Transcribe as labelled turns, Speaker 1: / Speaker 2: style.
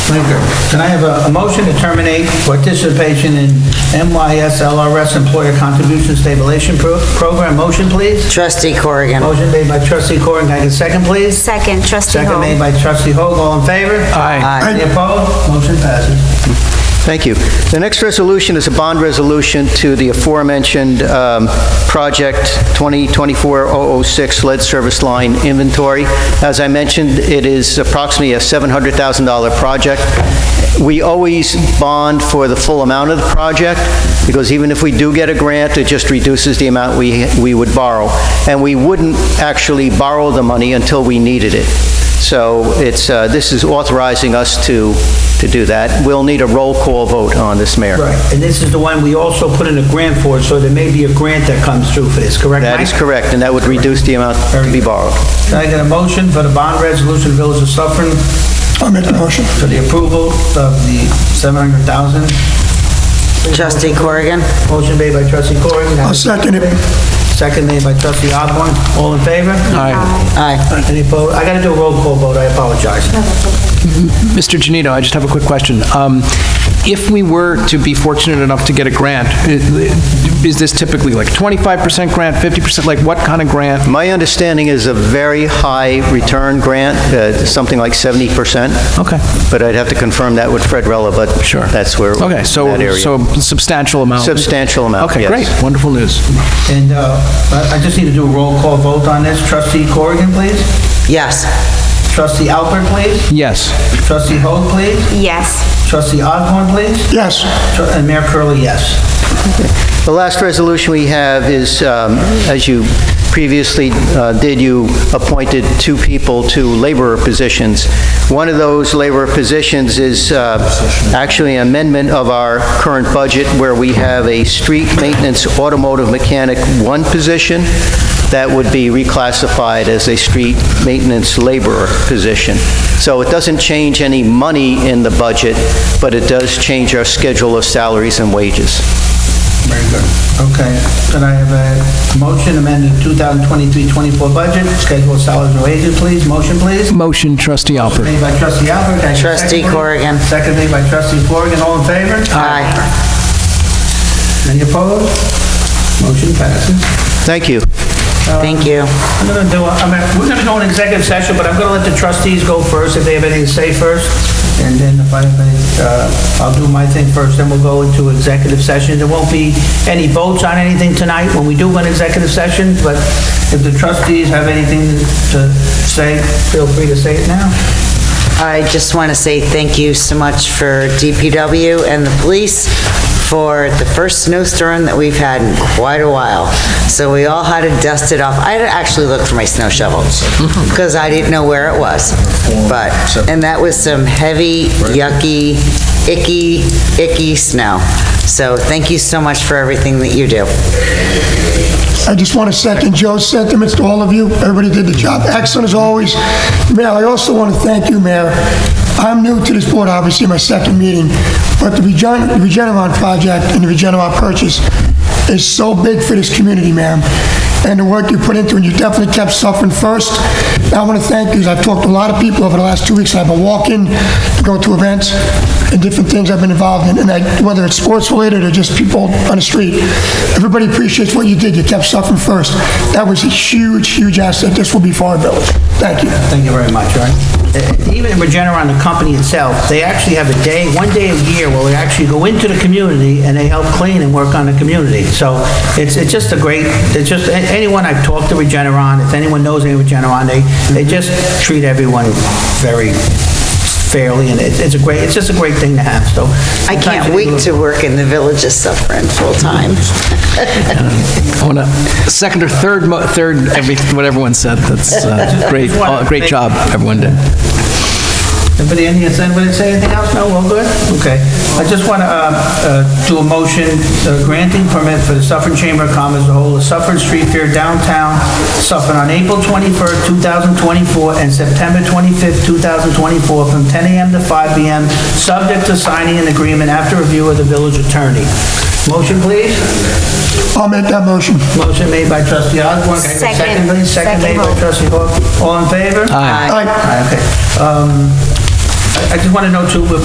Speaker 1: Linker. Can I have a a motion to terminate participation in MYS LRS Employer Contribution Stabilization Pro- Program? Motion, please.
Speaker 2: Trustee Corrigan.
Speaker 1: Motion made by trustee Corin. Can I get a second, please?
Speaker 3: Second, trustee
Speaker 1: Second made
Speaker 3: Hall.
Speaker 1: by trustee Hoag. All in favor?
Speaker 2: Aye.
Speaker 1: Any opposed? Motion passes.
Speaker 4: Thank you. The next resolution is a bond resolution to the aforementioned um, Project 2024-006 lead service line inventory. As I mentioned, it is approximately a $700,000 project. We always bond for the full amount of the project, because even if we do get a grant, it just reduces the amount we we would borrow. And we wouldn't actually borrow the money until we needed it. So it's, uh, this is authorizing us to, to do that. We'll need a roll call vote on this, Mayor.
Speaker 1: Right, and this is the one we also put in a grant for, so there may be a grant that comes through for this, correct,
Speaker 4: That is
Speaker 1: Mike?
Speaker 4: correct, and that would reduce the amount to be borrowed.
Speaker 1: Can I get a motion for the bond resolution Village of Suffering
Speaker 5: I'll make the motion.
Speaker 1: for the approval of the 700,000?
Speaker 2: Trustee Corrigan.
Speaker 1: Motion made by trustee Corin. Can I
Speaker 5: I'll
Speaker 1: have a
Speaker 5: second it.
Speaker 1: Second made by trustee Osborne. All in favor?
Speaker 6: Aye.
Speaker 2: Aye.
Speaker 1: Any opposed? I gotta do a roll call vote, I apologize.
Speaker 6: Mr. Genito, I just have a quick question. Um, If we were to be fortunate enough to get a grant, i- is this typically like 25% grant, 50%, like what kind of grant?
Speaker 4: My understanding is a very high return grant, uh, something like 70%.
Speaker 6: Okay.
Speaker 4: But I'd have to confirm that with Fred Rella, but
Speaker 6: Sure.
Speaker 4: that's where,
Speaker 6: Okay, so,
Speaker 4: that
Speaker 6: so
Speaker 4: area.
Speaker 6: substantial amount.
Speaker 4: Substantial amount,
Speaker 6: Okay,
Speaker 4: yes.
Speaker 6: great, wonderful news.
Speaker 1: And, uh, I I just need to do a roll call vote on this. Trustee Corrigan, please.
Speaker 2: Yes.
Speaker 1: Trustee Albert, please.
Speaker 6: Yes.
Speaker 1: Trustee Hoag, please.
Speaker 3: Yes.
Speaker 1: Trustee Osborne, please.
Speaker 5: Yes,
Speaker 1: Tr- And Mayor Curley, yes.
Speaker 4: The last resolution we have is, um, as you previously uh, did, you appointed two people to laborer positions. One of those laborer positions is uh, actually an amendment of our current budget where we have a street maintenance automotive mechanic one position that would be reclassified as a street maintenance laborer position. So it doesn't change any money in the budget, but it does change our schedule of salaries and wages.
Speaker 1: Very good. Okay, can I have a motion amending 2023-24 budget, schedule of salaries and wages, please? Motion, please?
Speaker 6: Motion, trustee Alpert.
Speaker 1: Made by trustee Albert. can I get a second,
Speaker 2: Trustee
Speaker 1: please?
Speaker 2: Corrigan.
Speaker 1: Second made by trustee Corrigan, all in favor?
Speaker 2: Aye.
Speaker 1: Any opposed? Motion passes.
Speaker 4: Thank you.
Speaker 2: Thank you.
Speaker 1: I'm gonna do, I mean, we're gonna go in executive session, but I'm gonna let the trustees go first if they have anything to say first. And then if I, have any, uh, I'll do my thing first, then we'll go into executive session. There won't be any votes on anything tonight when we do go in executive session, but if the trustees have anything to say, feel free to say it now.
Speaker 2: I just want to say thank you so much for DPW and the police for the first snowstorm that we've had in quite a while. So we all had to dust it off. I had to actually look for my snow shovel because I didn't know where it was. But, and that was some heavy, yucky, icky, icky snow. So thank you so much for everything that you do.
Speaker 5: I just want to second Joe's sentiments to all of you. Everybody did the job excellent as always. Mayor, I also want to thank you, Mayor. I'm new to this board, obviously, my second meeting, but the Regen- the Regeneron project and the Regeneron purchase is so big for this community, Mayor, and the work you put into it, you definitely kept suffering first. I want to thank you, 'cause I've talked to a lot of people over the last two weeks. I've been walking, go to events, and different things I've been involved in, and I, whether it's sports related or just people on the street, everybody appreciates what you did. You kept suffering first. That was a huge, huge asset. This will be for our village. Thank you.
Speaker 1: Thank you very much, all right? Uh, Even Regeneron, the company itself, they actually have a day, one day a year where we actually go into the community and they help clean and work on the community. So it's, it's just a great, it's just, a- anyone I've talked to Regeneron, if anyone knows any Regeneron, they, they just treat everyone very fairly and it- it's a great, it's just a great thing to have, so.
Speaker 2: I can't wait to work in the Village of Suffering full-time.
Speaker 6: I want to second or third, mo- third, every- what everyone said, that's uh, great, uh, great job, everyone did.
Speaker 1: Anybody in here, does anybody say anything else? No, well, good, okay. I just want to uh, do a motion uh, granting permit for the Suffern Chamber of Commerce to hold a Suffern Street Fair downtown Suffern on April 21st, 2024, and September 25th, 2024, from 10 a.m. to 5 p.m., subject to signing an agreement after review of the village attorney. Motion, please?
Speaker 5: I'll make that motion.
Speaker 1: Motion made by trustee Osborne. Can I get a
Speaker 3: Second.
Speaker 1: please? Second made by
Speaker 3: Second.
Speaker 1: trustee Hall. All in favor?
Speaker 6: Aye.
Speaker 5: Aye.
Speaker 1: Aye, Okay. Um, I I just want to know too,